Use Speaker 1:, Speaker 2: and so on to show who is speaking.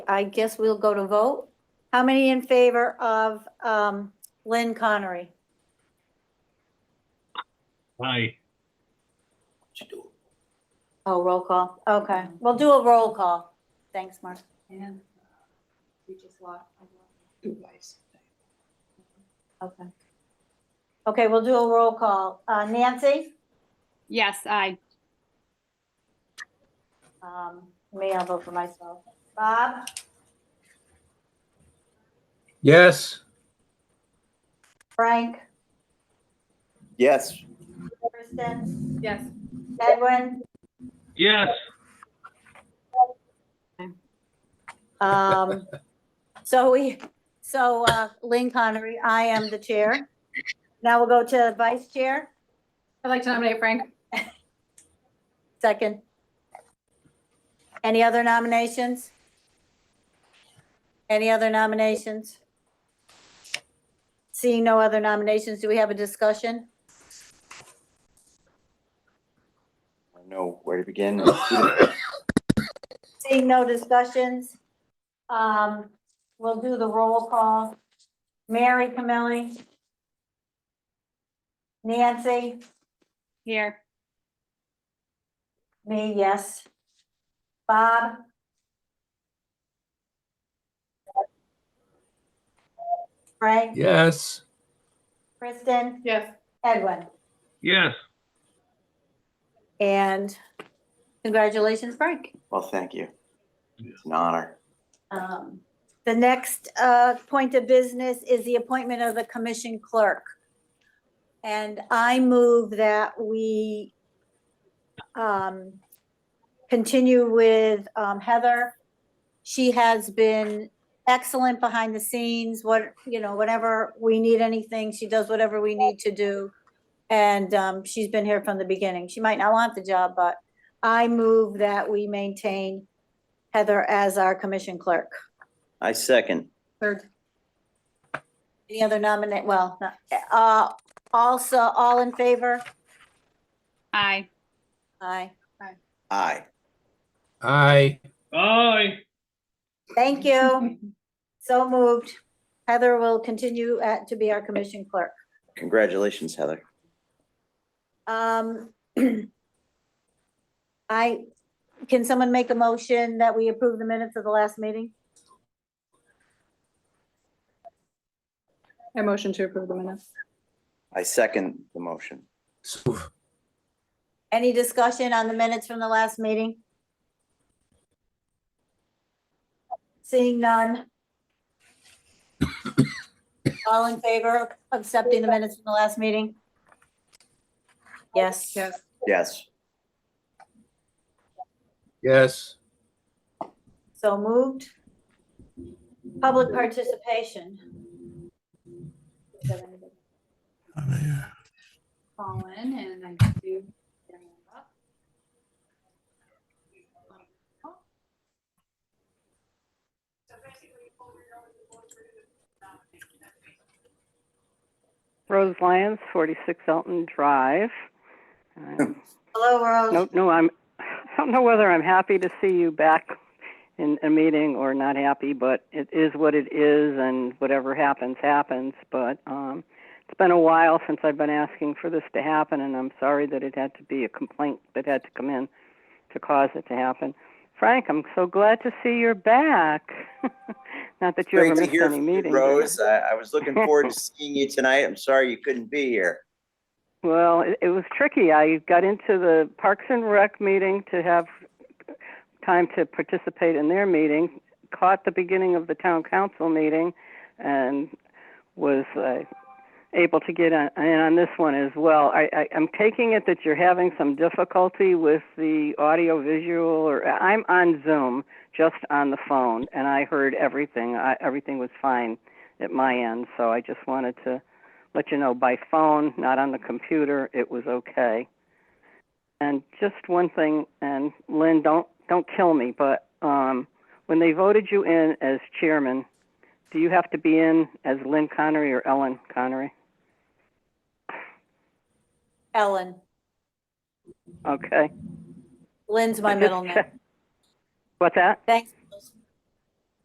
Speaker 1: I guess we'll go to vote. How many in favor of um, Lynn Connery?
Speaker 2: Aye.
Speaker 1: Oh, roll call. Okay, we'll do a roll call. Thanks, Mark.
Speaker 3: And we just lost.
Speaker 1: Okay. Okay, we'll do a roll call. Uh, Nancy?
Speaker 4: Yes, I.
Speaker 1: Um, May I vote for myself? Bob?
Speaker 2: Yes.
Speaker 1: Frank?
Speaker 5: Yes.
Speaker 1: Kristen?
Speaker 3: Yes.
Speaker 1: Edwin?
Speaker 2: Yes.
Speaker 1: Um, so we, so, uh, Lynn Connery, I am the chair. Now we'll go to vice chair,
Speaker 3: I'd like to nominate Frank.
Speaker 1: second. Any other nominations? Any other nominations? Seeing no other nominations, do we have a discussion?
Speaker 5: I don't know where to begin.
Speaker 1: Seeing no discussions, um, we'll do the roll call. Mary Camilli? Nancy?
Speaker 4: Here.
Speaker 1: Me, yes. Bob? Frank?
Speaker 2: Yes.
Speaker 1: Kristen?
Speaker 3: Yes.
Speaker 1: Edwin?
Speaker 2: Yes.
Speaker 1: And congratulations, Frank.
Speaker 5: Well, thank you. It's an honor.
Speaker 1: Um, The next uh, point of business is the appointment of the commission clerk. And I move that we um, continue with um, Heather. She has been excellent behind the scenes, what, you know, whenever we need anything, she does whatever we need to do. And um, she's been here from the beginning. She might not want the job, but I move that we maintain Heather as our commission clerk.
Speaker 5: I second.
Speaker 1: Third. Any other nominate, well, not- uh, also, all in favor?
Speaker 4: I.
Speaker 1: Aye.
Speaker 5: Aye.
Speaker 2: Aye. Aye.
Speaker 1: Thank you. So moved. Heather will continue at, to be our commission clerk.
Speaker 5: Congratulations, Heather.
Speaker 1: Um, I, can someone make a motion that we approve the minutes of the last meeting?
Speaker 3: I motion to approve the minutes.
Speaker 5: I second the motion.
Speaker 2: So,
Speaker 1: Any discussion on the minutes from the last meeting? Seeing none. All in favor of accepting the minutes from the last meeting? Yes.
Speaker 3: Yes.
Speaker 5: Yes.
Speaker 2: Yes.
Speaker 1: So moved. Public participation.
Speaker 3: Colin and I do.
Speaker 6: Rose Lyons, 46 Elton Drive. Um,
Speaker 1: Hello, Rose.
Speaker 6: No, no, I'm, I don't know whether I'm happy to see you back in a meeting or not happy, but it is what it is, and whatever happens, happens. But um, it's been a while since I've been asking for this to happen, and I'm sorry that it had to be a complaint that had to come in to cause it to happen. Frank, I'm so glad to see you're back. not that you
Speaker 5: Great
Speaker 6: ever
Speaker 5: to
Speaker 6: missed
Speaker 5: hear
Speaker 6: any
Speaker 5: from you,
Speaker 6: meetings.
Speaker 5: Rose. I, I was looking forward to seeing you tonight. I'm sorry you couldn't be here.
Speaker 6: Well, it, it was tricky. I got into the Parks and Rec meeting to have time to participate in their meeting, caught the beginning of the town council meeting, and was uh, able to get on, in on this one as well. I, I, I'm taking it that you're having some difficulty with the audio visual, or I'm on Zoom, just on the phone, and I heard everything. I, everything was fine at my end, so I just wanted to let you know by phone, not on the computer, it was okay. And just one thing, and Lynn, don't don't kill me, but um, when they voted you in as chairman, do you have to be in as Lynn Connery or Ellen Connery?
Speaker 1: Ellen.
Speaker 6: Okay.
Speaker 1: Lynn's my middle name.
Speaker 6: What's that?
Speaker 1: Thanks,